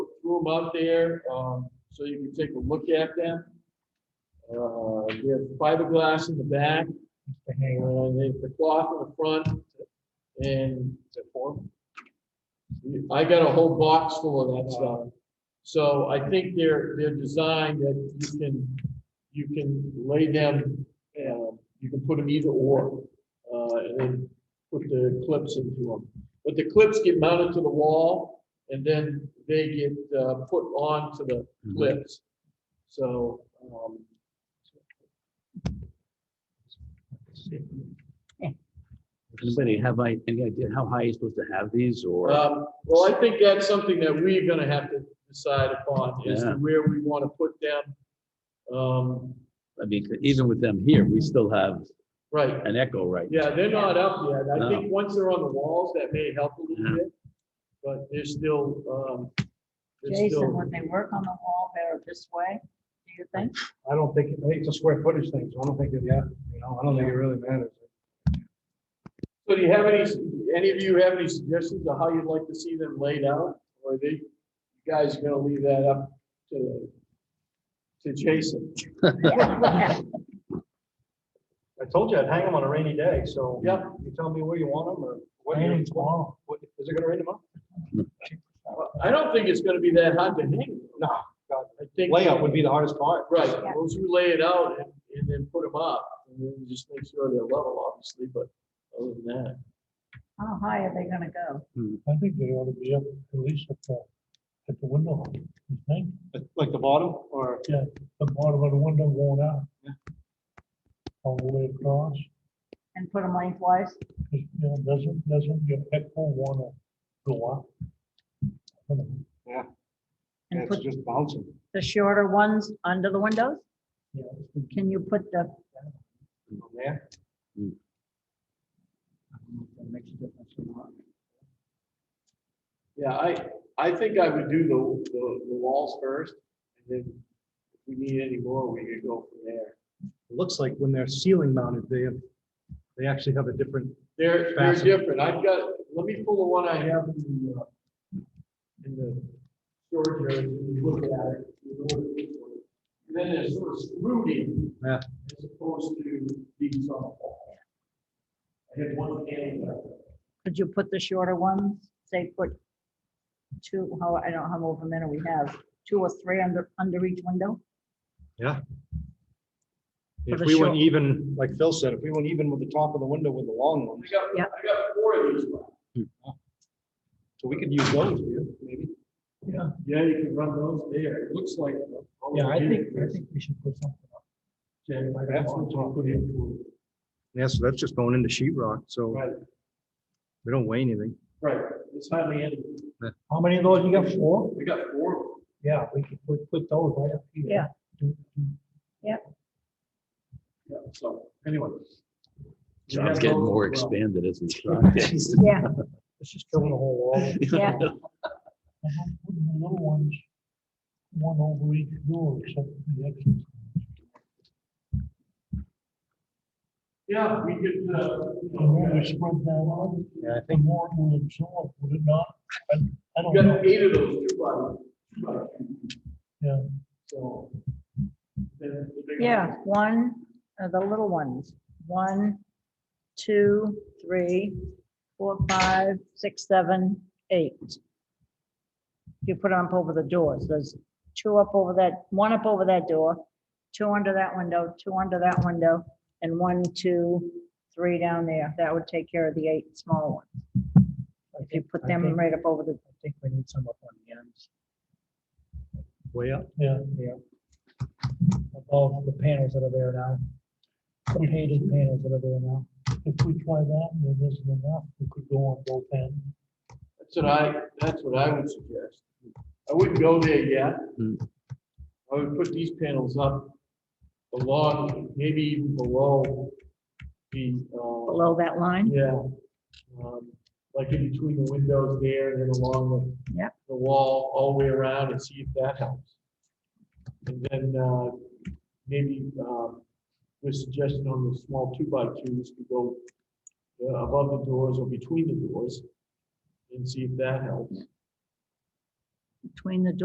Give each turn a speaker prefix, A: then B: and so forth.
A: them out there, um, so you can take a look at them. Uh, we have fiberglass in the back, and they- the cloth in the front, and. I got a whole box full of that stuff. So I think they're, they're designed that you can, you can lay them, uh, you can put them either or. Uh, and then put the clips into them. But the clips get mounted to the wall and then they get, uh, put onto the
B: Mm-hmm.
A: clips. So, um,
B: Anybody have I, any idea how high you're supposed to have these or?
A: Um, well, I think that's something that we're gonna have to decide upon, is
B: Yeah.
A: where we wanna put them. Um,
B: I mean, even with them here, we still have
A: right,
B: an echo, right?
A: yeah, they're not up yet, I
B: No.
A: think once they're on the walls, that may help a little
B: Yeah.
A: bit. But they're still, um, they're
C: Jason,
A: still,
C: would they work on the wall better this way, do you think?
D: I don't think, I think it's a square footage thing, so I don't think it, yeah, you know, I don't think it really matters.
A: so do you have any, any of you have any suggestions of how you'd like to see them laid out? Or are they, you guys are gonna leave that up to, to Jason?
D: I told you I'd hang them on a rainy day, so.
A: Yeah.
D: You tell me where you want them or what. Raining tomorrow. Is it gonna rain tomorrow?
A: I don't think it's gonna be that hard to hang.
D: No, God.
A: I think-
D: Layout would be the hardest part.
A: Right,
C: Yeah.
A: once you lay it out and, and then put them up, and then you just make sure they're level, obviously, but other than that.
C: How high are they gonna go?
E: I think they ought to be up at least at the, at the window, you think?
D: Like- Like the bottom or?
E: The bottom of the window going out. All the way across,
C: And put them lengthwise?
E: 'cause, you know, doesn't, doesn't your echo wanna go up? I don't know.
C: And
D: It's
C: put
D: just bouncing.
C: the shorter ones under the windows?
E: Yeah,
C: Can you put the,
D: from there.
B: Hmm.
D: I don't know if that makes a difference or not.
A: Yeah, I, I think I would do the, the, the walls first, and then if we need any more, we could go from there.
D: It Looks like when they're ceiling mounted, they have, they actually have a different
A: They're, they're
D: Fascinating.
A: different, I've got, let me pull the one I have in the, uh, in the storage area, and you look at it. you know what it is. And Then it's sort of screwed in,
D: Yeah.
A: as opposed to being on. I had one hand left.
C: could you put the shorter ones, say, put two, how, I don't know how over many we have, two or three under, under each window?
D: If
C: the
D: we went
C: short-
D: even, like Phil said, if we went even with the top of the window with the long
A: I
D: ones,
A: got, I
C: Yeah.
A: got four of these left.
D: so we could use those here, maybe.
A: Yeah, yeah, you can run those there. It looks like.
E: Yeah, I think, I think we should put something up.
A: That's what I'll put in.
D: Yeah, so that's just going into sheet rock, so
A: Right,
D: we don't weigh anything.
A: right. It's hardly any.
E: How many of those you got, four?
A: We got four.
E: Yeah, we could, we put those right up here.
C: Yeah.
E: Do- do-
A: Yeah, so anyway.
B: John's getting more expanded as we talk.
C: Yeah,
E: It's just filling the whole wall.
C: yeah.
E: And then putting the little ones, one over each door except for the exit.
A: Yeah, we could, uh, you
E: The more
A: know,
E: we spread that out,
D: Yeah, I
E: the more it will absorb, would it not? I I don't
A: we
E: know.
A: got eight of those two by- two by.
E: Yeah.
A: So. then the big
C: Yeah,
A: ones.
C: one, uh, the little ones, one, two, three, four, five, six, seven, eight. You put them up over the doors, there's two up over that, one up over that door, two under that window, two under that window, and one, two, three down there, that would take care of the eight small ones. If you put
E: I
C: them
E: think-
C: right up over the,
E: I think we need some up on the ends. Way up? Yeah. Yeah. Above the panels that are there now. The painted panels that are there now. If we try that and it isn't enough, we could go on both ends.
A: That's what I, that's what I would suggest. I wouldn't go there yet.
B: Hmm.
A: I would put these panels up along, maybe even below the, uh,
C: below that line,
A: Yeah. um, Like in between the windows there and then along the.
C: Yep.
A: The wall all the way around and see if that helps. And then, uh, maybe, um, the suggestion on the small two by twos to go uh, above the doors or between the doors and see if that helps.
C: between the